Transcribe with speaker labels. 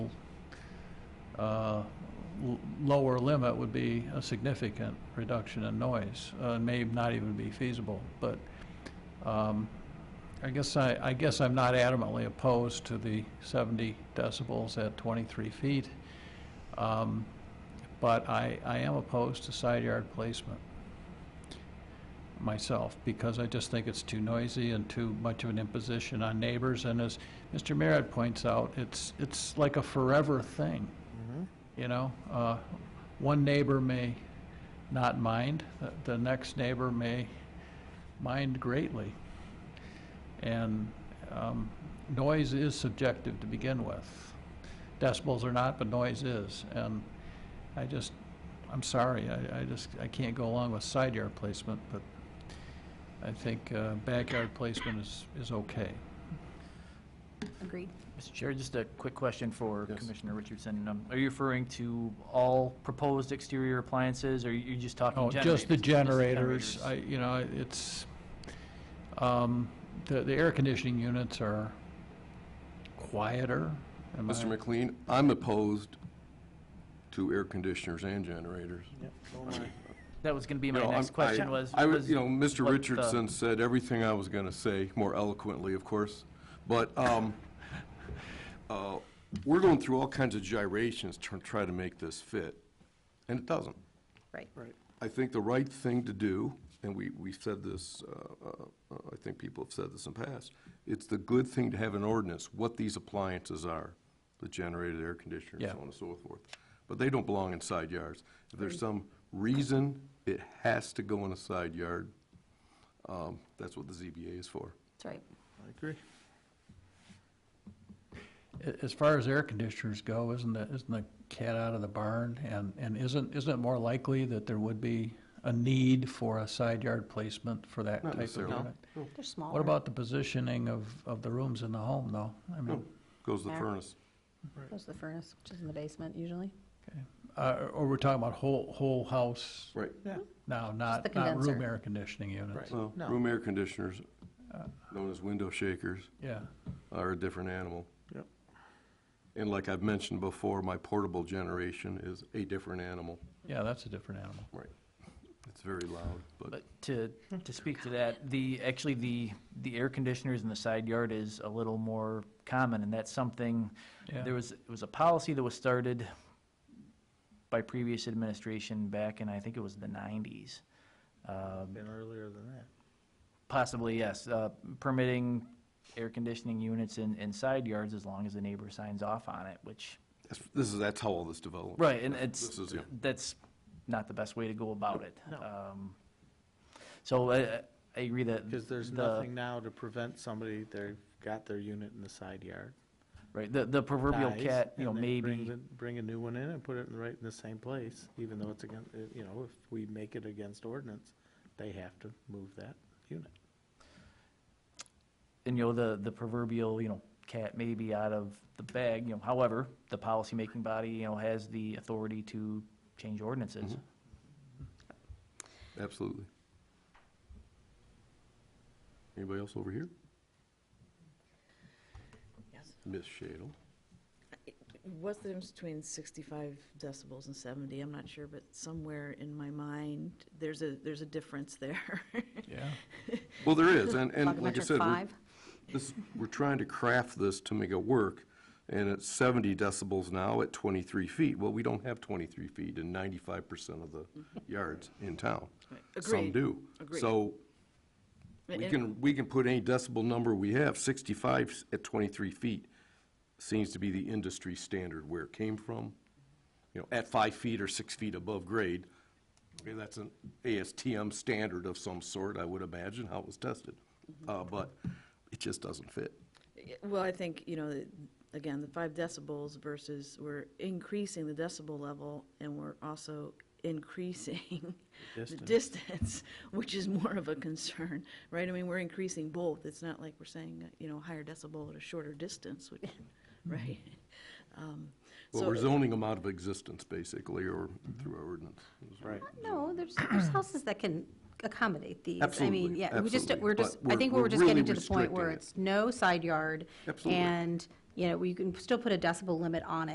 Speaker 1: uh, l- lower limit would be a significant reduction in noise. Uh, It may not even be feasible, but um, I guess I, I guess I'm not adamantly opposed to the 70 decibels at 23 feet, Um, but I, I am opposed to side yard placement myself, because I just think it's too noisy and too much of an imposition on neighbors. And as Mr. Merritt points out, it's, it's like a forever thing,
Speaker 2: Mm-hmm.
Speaker 1: you know? Uh, One neighbor may not mind, the- the next neighbor may mind greatly. And um, noise is subjective to begin with. Decibels are not, but noise is. And I just, I'm sorry, I, I just, I can't go along with side yard placement, but I think uh, backyard placement is, is okay.
Speaker 3: Agreed.
Speaker 2: Mr. Chair, just a quick question for
Speaker 4: Yes.
Speaker 2: Commissioner Richardson. Um, Are you referring to all proposed exterior appliances, or are you just talking
Speaker 4: Oh,
Speaker 1: No,
Speaker 2: generators?
Speaker 1: Oh, just the generators,
Speaker 2: generators?
Speaker 1: I, you know, it's, um, the, the air conditioning units are quieter. am I-
Speaker 4: Mr. McLean, I'm opposed to air conditioners and generators.
Speaker 2: That was going to be
Speaker 4: You know,
Speaker 2: my
Speaker 4: I'm-
Speaker 2: next question
Speaker 4: I-
Speaker 2: was.
Speaker 4: I,
Speaker 2: was
Speaker 4: you know, Mr.
Speaker 2: what the-
Speaker 4: Richardson said everything I was going to say, more eloquently, of course, but um, uh, we're going through all kinds of gyrations to try to make this fit, and it doesn't.
Speaker 3: Right.
Speaker 4: I think the right thing to do, and we, we've said this, uh, uh, I think people have said this in the past, it's the good thing to have an ordinance, what these appliances are, the generator, air conditioner,
Speaker 1: Yeah.
Speaker 4: so on and so forth. But they don't belong in side yards. If there's some reason it has to go in a side yard, um, that's what the ZBA is for.
Speaker 3: That's right.
Speaker 1: A- As far as air conditioners go, isn't the, isn't the cat out of the barn? And, and isn't, isn't it more likely that there would be a need for a side yard placement for that
Speaker 4: Not
Speaker 1: type of
Speaker 4: necessarily.
Speaker 1: unit?
Speaker 3: They're smaller.
Speaker 1: What about the positioning of, of the rooms in the home, though? I mean,
Speaker 4: Goes to the
Speaker 3: Yeah.
Speaker 4: furnace.
Speaker 3: Goes to the furnace, which is in the basement usually.
Speaker 4: Oh.
Speaker 1: uh, or we're talking about whole, whole house
Speaker 4: Right.
Speaker 1: now, not,
Speaker 3: the
Speaker 1: not room
Speaker 3: condenser.
Speaker 1: air conditioning units?
Speaker 4: Well, room air conditioners, known as window shakers.
Speaker 1: Yeah,
Speaker 4: are a different animal.
Speaker 5: Yep.
Speaker 4: And like I've mentioned before, my portable generation is a different animal.
Speaker 1: yeah, that's a different animal.
Speaker 4: Right. It's very loud, but
Speaker 2: But to, to speak to that, the, actually, the, the air conditioners in the side yard is a little more common, and that's something,
Speaker 1: Yeah.
Speaker 2: there was, it was a policy that was started by previous administration back in, I think it was the nineties. Um,
Speaker 5: Been earlier than that.
Speaker 2: Possibly, yes, uh, permitting air conditioning units in, in side yards as long as the neighbor signs off on it, which,
Speaker 4: that's- this is, that's how all this developed.
Speaker 2: right, and it's,
Speaker 4: This is, yeah.
Speaker 2: that's not the best way to go about it.
Speaker 5: No.
Speaker 2: Um, So I, I agree that.
Speaker 5: Because there's
Speaker 2: the-
Speaker 5: nothing now to prevent somebody, they've got their unit in the side yard.
Speaker 2: Right, the, the proverbial
Speaker 5: dies,
Speaker 2: cat, you know,
Speaker 5: and they Bring,
Speaker 2: maybe,
Speaker 5: the- bring a new one in and put it in the right, in the same place, even though it's against, you know, if we make it against ordinance, they have to move that unit.
Speaker 2: and you know, the, the proverbial, you know, cat may be out of the bag, you know, however, the policymaking body, you know, has the authority to change
Speaker 4: Mm-hmm.
Speaker 2: ordinances.
Speaker 4: Absolutely. Anybody else over here?
Speaker 6: Yes.
Speaker 4: Ms. Shadle?
Speaker 6: What's the difference between 65 decibels and 70? I'm not sure, but somewhere in my mind, there's a, there's a difference there.
Speaker 1: Yeah,
Speaker 4: Well, there is, and, and like I
Speaker 3: Plug
Speaker 4: said, we're,
Speaker 3: five?
Speaker 4: this, we're trying to craft this to make it work, and it's seventy decibels now at twenty-three feet. Well, we don't have twenty-three feet in ninety-five percent of the yards in town. Some
Speaker 6: Agreed.
Speaker 4: do.
Speaker 6: Agreed.
Speaker 4: So we
Speaker 6: And-
Speaker 4: can, we can put any decibel number we have, sixty-five at twenty-three feet seems to be the industry standard where it came from. You know, at five feet or six feet above grade, okay, that's an ASTM standard of some sort, I would imagine, how it was tested.
Speaker 6: Mm-hmm.
Speaker 4: Uh, but it just doesn't fit.
Speaker 6: Well, I think, you know, that, again, the five decibels versus we're increasing the decibel level and we're also increasing the distance, which is more of a concern, right? I mean, we're increasing both. It's not like we're saying, you know, higher decibel at a shorter distance, which, right? Um,
Speaker 4: Well,
Speaker 6: so-
Speaker 4: we're zoning them out of existence, basically, or through our ordinance.
Speaker 5: Right.
Speaker 3: No, there's, there's houses that can accommodate these. I mean,
Speaker 4: Absolutely,
Speaker 3: yeah, we just,
Speaker 4: absolutely,
Speaker 3: we're just,
Speaker 4: but
Speaker 3: I
Speaker 4: we're-
Speaker 3: think
Speaker 4: we're
Speaker 3: we're just getting
Speaker 4: really
Speaker 3: to the point
Speaker 4: restricting
Speaker 3: where
Speaker 4: it.
Speaker 3: it's no side yard.
Speaker 4: Absolutely.
Speaker 3: And, you know, you can still put a decibel limit on it.